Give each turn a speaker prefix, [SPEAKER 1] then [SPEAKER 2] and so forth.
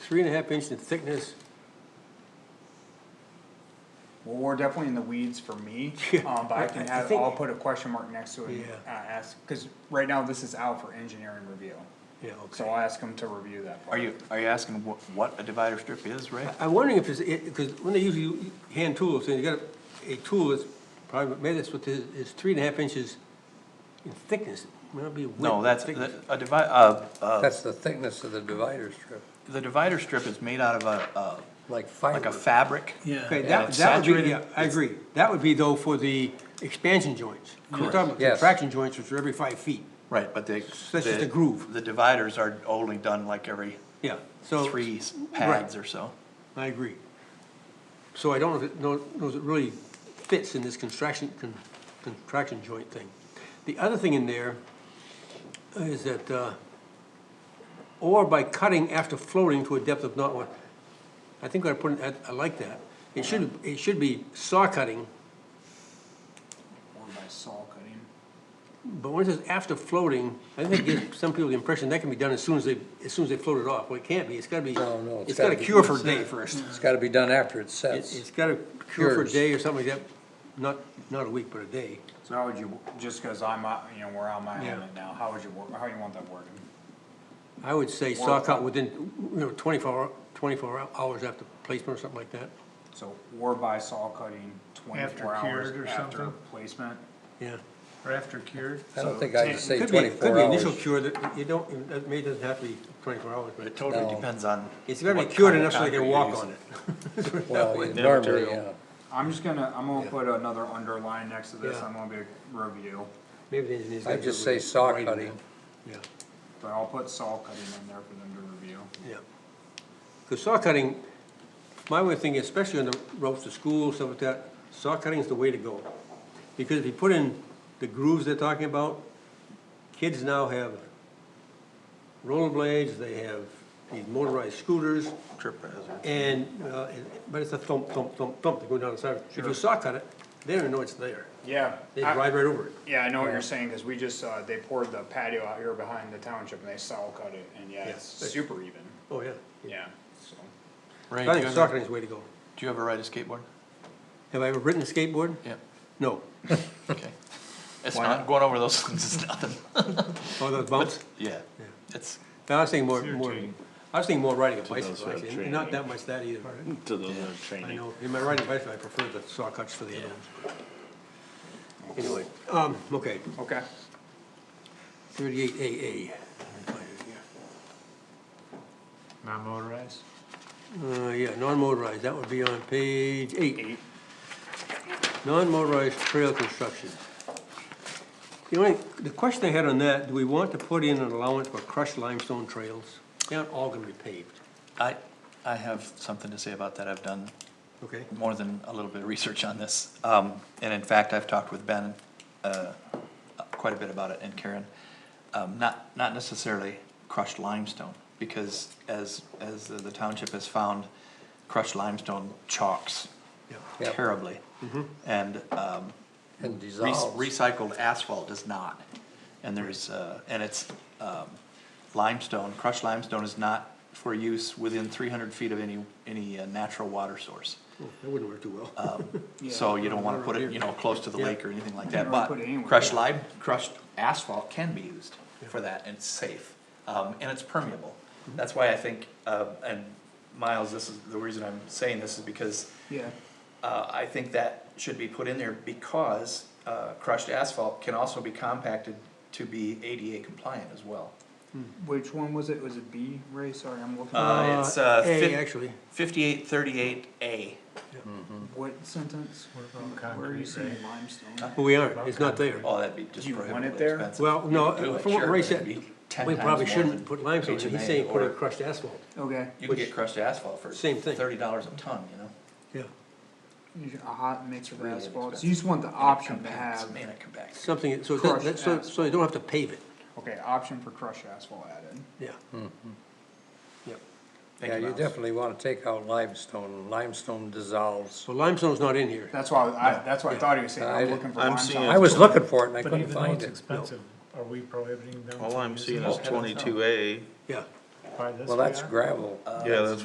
[SPEAKER 1] three and a half inch in thickness.
[SPEAKER 2] Well, we're definitely in the weeds for me, um, but
[SPEAKER 1] I-
[SPEAKER 2] I can
[SPEAKER 1] I
[SPEAKER 2] have,
[SPEAKER 1] think-
[SPEAKER 2] I'll put a question mark next to it and
[SPEAKER 1] Yeah.
[SPEAKER 2] uh, ask, cause right now this is out for engineering review.
[SPEAKER 1] Yeah,
[SPEAKER 2] So
[SPEAKER 1] okay.
[SPEAKER 2] I'll ask them to review that part.
[SPEAKER 3] Are you, are you asking what, what a divider strip is, Ray?
[SPEAKER 1] I'm wondering if it's, because when they usually u- hand tools, and you got a, a tool that's probably, maybe that's what this is, three and a half inches in thickness. Might not be width.
[SPEAKER 3] No, that's,
[SPEAKER 1] thickness.
[SPEAKER 3] that- a divi, uh, uh,
[SPEAKER 4] That's the thickness of the divider strip,
[SPEAKER 3] the divider strip is made out of a, uh,
[SPEAKER 4] like
[SPEAKER 3] like a
[SPEAKER 4] fiber.
[SPEAKER 3] fabric.
[SPEAKER 1] Okay,
[SPEAKER 3] Yeah,
[SPEAKER 1] that,
[SPEAKER 3] it's
[SPEAKER 1] that would be, yeah,
[SPEAKER 3] saturated.
[SPEAKER 1] I agree. That would be though for the expansion joints. We're talking about
[SPEAKER 4] Yes.
[SPEAKER 1] contraction joints, which are every five feet.
[SPEAKER 3] Right, but they.
[SPEAKER 1] That's just a groove.
[SPEAKER 3] The dividers are only done like every
[SPEAKER 1] Yeah, so.
[SPEAKER 3] three s-
[SPEAKER 1] Right.
[SPEAKER 3] pads or so.
[SPEAKER 1] I agree. So I don't know if it, know knows it really fits in this contraction, con- contraction joint thing. The other thing in there is that, uh, or by cutting after floating to a depth of not one, I think I put, in- I, I like that. It should, it should be saw cutting,
[SPEAKER 2] Or by saw cutting.
[SPEAKER 1] but when it says after floating, I think it gives some people the impression that can be done as soon as they, as soon as they float it off. Well, it can't be, it's gotta be,
[SPEAKER 4] No, no, it's
[SPEAKER 1] it's gotta
[SPEAKER 4] gotta be-
[SPEAKER 1] cure for a day first.
[SPEAKER 4] It's gotta be done after it
[SPEAKER 1] It-
[SPEAKER 4] sets.
[SPEAKER 1] It's got to cure for a
[SPEAKER 4] Cures.
[SPEAKER 1] day or something like that, not, not a week, but a day.
[SPEAKER 2] So how would you, just cause I'm, uh, you know, we're on my
[SPEAKER 1] Yeah.
[SPEAKER 2] element now, how would you work, how you want that working?
[SPEAKER 1] I would say
[SPEAKER 2] Or-
[SPEAKER 1] sock out within, you know, twenty-four, hour- twenty-four hours after placement or something like that,
[SPEAKER 2] So or by saw cutting twenty-four
[SPEAKER 5] After cured
[SPEAKER 2] hours
[SPEAKER 5] or
[SPEAKER 2] after
[SPEAKER 5] something?
[SPEAKER 2] placement.
[SPEAKER 1] yeah.
[SPEAKER 5] Or after cured?
[SPEAKER 4] I don't think I'd say
[SPEAKER 1] Could be- Could
[SPEAKER 4] twenty-four
[SPEAKER 1] be initial
[SPEAKER 4] hours.
[SPEAKER 1] cure that, you don't, it may, doesn't have to be twenty-four hours,
[SPEAKER 3] But
[SPEAKER 1] but
[SPEAKER 3] it totally
[SPEAKER 4] No.
[SPEAKER 3] depends on.
[SPEAKER 1] it's got to be
[SPEAKER 3] what
[SPEAKER 1] cured
[SPEAKER 3] kind of
[SPEAKER 1] enough so they can
[SPEAKER 3] concrete you're
[SPEAKER 1] walk
[SPEAKER 3] using.
[SPEAKER 1] on it.
[SPEAKER 4] Well,
[SPEAKER 3] the
[SPEAKER 4] normally, yeah.
[SPEAKER 3] material.
[SPEAKER 2] I'm just gonna, I'm gonna put another underline next to this,
[SPEAKER 1] Yeah.
[SPEAKER 2] I'm gonna be a review,
[SPEAKER 1] Maybe the engineer's.
[SPEAKER 4] I'd
[SPEAKER 1] gotta
[SPEAKER 4] just
[SPEAKER 1] do
[SPEAKER 4] say
[SPEAKER 1] it
[SPEAKER 4] saw
[SPEAKER 1] right in
[SPEAKER 4] cutting.
[SPEAKER 1] there. Yeah.
[SPEAKER 2] but I'll put saw cutting in there for them to review.
[SPEAKER 1] Yeah. Because saw cutting, my way of thinking, especially on the routes to school, stuff like that, saw cutting is the way to go. Because if you put in the grooves they're talking about, kids now have roller blades, they have these motorized scooters,
[SPEAKER 3] Trip hazard.
[SPEAKER 1] and, uh, and- but it's a thump, thump, thump, thump, they go down the side. If you saw cut it, they don't even know it's there.
[SPEAKER 2] Yeah.
[SPEAKER 1] They
[SPEAKER 2] I-
[SPEAKER 1] ride right over it.
[SPEAKER 2] Yeah, I know what you're saying, cause we just, uh, they poured the patio out here behind the township and they saw cut it, and yeah, it's
[SPEAKER 1] Yeah.
[SPEAKER 2] super even,
[SPEAKER 1] Oh, yeah.
[SPEAKER 2] yeah, so.
[SPEAKER 3] Ray,
[SPEAKER 1] I
[SPEAKER 3] do you
[SPEAKER 1] think saw
[SPEAKER 3] ever,
[SPEAKER 1] cutting is the way to go.
[SPEAKER 3] do you ever ride a skateboard?
[SPEAKER 1] Have I ever ridden a skateboard?
[SPEAKER 3] Yeah,
[SPEAKER 1] No.
[SPEAKER 3] okay. It's
[SPEAKER 2] Why
[SPEAKER 3] not, going over those things is nothing.
[SPEAKER 1] Oh, those bumps?
[SPEAKER 3] Yeah, it's,
[SPEAKER 1] No, I was thinking more, more, I was thinking more riding a
[SPEAKER 6] those
[SPEAKER 1] bicycle,
[SPEAKER 6] who have
[SPEAKER 1] actually, and not that much that either.
[SPEAKER 6] To those that are
[SPEAKER 1] I
[SPEAKER 6] training.
[SPEAKER 1] know, in my riding bicycle, I prefer the saw cuts for the other ones. Anyway, um, okay,
[SPEAKER 2] Okay.
[SPEAKER 1] thirty-eight AA.
[SPEAKER 5] Not motorized?
[SPEAKER 1] Uh, yeah, non-motorized, that would be on page eight. Non-motorized trail construction. The only, the question I had on that, do we want to put in an allowance for crushed limestone trails? They aren't all gonna be paved,
[SPEAKER 3] I, I have something to say about that. I've done
[SPEAKER 1] okay?
[SPEAKER 3] more than a little bit of research on this. Um, and in fact, I've talked with Ben, uh, quite a bit about it and Karen. Um, not, not necessarily crushed limestone, because as, as the township has found, crushed limestone chalks
[SPEAKER 1] Yeah.
[SPEAKER 4] Yeah.
[SPEAKER 3] terribly. And, um,
[SPEAKER 4] And
[SPEAKER 3] Re-
[SPEAKER 4] dissolves.
[SPEAKER 3] Recycled asphalt does not, and there's, uh, and it's, um, limestone, crushed limestone is not for use within three hundred feet of any, any uh, natural water source.
[SPEAKER 1] Oh, That wouldn't work too well.
[SPEAKER 3] So you don't wanna put it, you know, close to the
[SPEAKER 1] Yeah.
[SPEAKER 3] lake or anything like
[SPEAKER 2] You
[SPEAKER 3] that,
[SPEAKER 2] don't
[SPEAKER 3] but
[SPEAKER 2] put it anywhere,
[SPEAKER 3] crushed
[SPEAKER 2] yeah.
[SPEAKER 3] lime, crushed asphalt can be used for that, and it's safe, um, and it's permeable. That's why I think, uh, and Miles, this is, the reason I'm saying this is because
[SPEAKER 2] Yeah.
[SPEAKER 3] uh, I think that should be put in there because, uh, crushed asphalt can also be compacted to be ADA compliant as well.
[SPEAKER 2] Hmm. Which one was it? Was it B, Ray? Sorry, I'm looking.
[SPEAKER 3] Uh,
[SPEAKER 2] at
[SPEAKER 3] it's, uh,
[SPEAKER 1] A,
[SPEAKER 3] fif-
[SPEAKER 1] actually.
[SPEAKER 3] Fifty-eight thirty-eight A,
[SPEAKER 2] What sentence?
[SPEAKER 5] about
[SPEAKER 2] Where are you
[SPEAKER 5] concrete,
[SPEAKER 2] seeing
[SPEAKER 5] Ray?
[SPEAKER 2] limestone?
[SPEAKER 1] Well, we aren't, it's not there.
[SPEAKER 3] oh, that'd be just
[SPEAKER 2] Do you want it
[SPEAKER 3] prohibitively
[SPEAKER 2] there?
[SPEAKER 3] expensive.
[SPEAKER 1] Well, no,
[SPEAKER 3] You could do it,
[SPEAKER 1] from what
[SPEAKER 3] sure,
[SPEAKER 1] Ray
[SPEAKER 3] but it'd
[SPEAKER 1] said,
[SPEAKER 3] be 10
[SPEAKER 1] We
[SPEAKER 3] times
[SPEAKER 1] probably
[SPEAKER 3] more than
[SPEAKER 1] shouldn't put limestone, in.
[SPEAKER 3] HMA
[SPEAKER 1] he's saying put
[SPEAKER 3] or-
[SPEAKER 1] in crushed asphalt.
[SPEAKER 2] Okay,
[SPEAKER 3] You can get crushed asphalt for
[SPEAKER 1] Same thing.
[SPEAKER 3] thirty dollars a ton, you know?
[SPEAKER 1] Yeah.
[SPEAKER 2] You should- a hot mix of
[SPEAKER 3] really
[SPEAKER 2] asphalt. So
[SPEAKER 3] expensive.
[SPEAKER 2] you just want the
[SPEAKER 3] And it
[SPEAKER 2] option to
[SPEAKER 3] compacts,
[SPEAKER 2] have,
[SPEAKER 3] Man, it compacts.
[SPEAKER 1] Something, so, it doesn't-
[SPEAKER 2] Crushed
[SPEAKER 1] that's- so,
[SPEAKER 2] asphalt.
[SPEAKER 1] so you don't have to pave it,
[SPEAKER 2] okay, option for crushed asphalt added.
[SPEAKER 1] yeah. Mm-hmm. Yep.
[SPEAKER 3] Thank
[SPEAKER 4] Yeah, you
[SPEAKER 3] Miles.
[SPEAKER 4] definitely wanna take out limestone, limestone dissolves.
[SPEAKER 1] So limestone's not in here.
[SPEAKER 2] That's why, I, that's what I thought he was saying.
[SPEAKER 4] I
[SPEAKER 2] I'm
[SPEAKER 4] didn't-
[SPEAKER 2] looking for
[SPEAKER 6] I'm seeing-
[SPEAKER 2] limestone.
[SPEAKER 4] I was looking for it and I
[SPEAKER 5] But
[SPEAKER 4] couldn't
[SPEAKER 5] even though
[SPEAKER 4] find
[SPEAKER 5] it's
[SPEAKER 4] it.
[SPEAKER 5] expensive, are we prohibiting them?
[SPEAKER 6] All
[SPEAKER 5] from
[SPEAKER 6] I'm
[SPEAKER 5] using
[SPEAKER 6] seeing
[SPEAKER 5] it?
[SPEAKER 6] is
[SPEAKER 5] I don't know.
[SPEAKER 6] twenty-two A,
[SPEAKER 1] Yeah,
[SPEAKER 7] by this
[SPEAKER 8] Well, that's
[SPEAKER 7] guy?
[SPEAKER 8] gravel.
[SPEAKER 4] Yeah, that's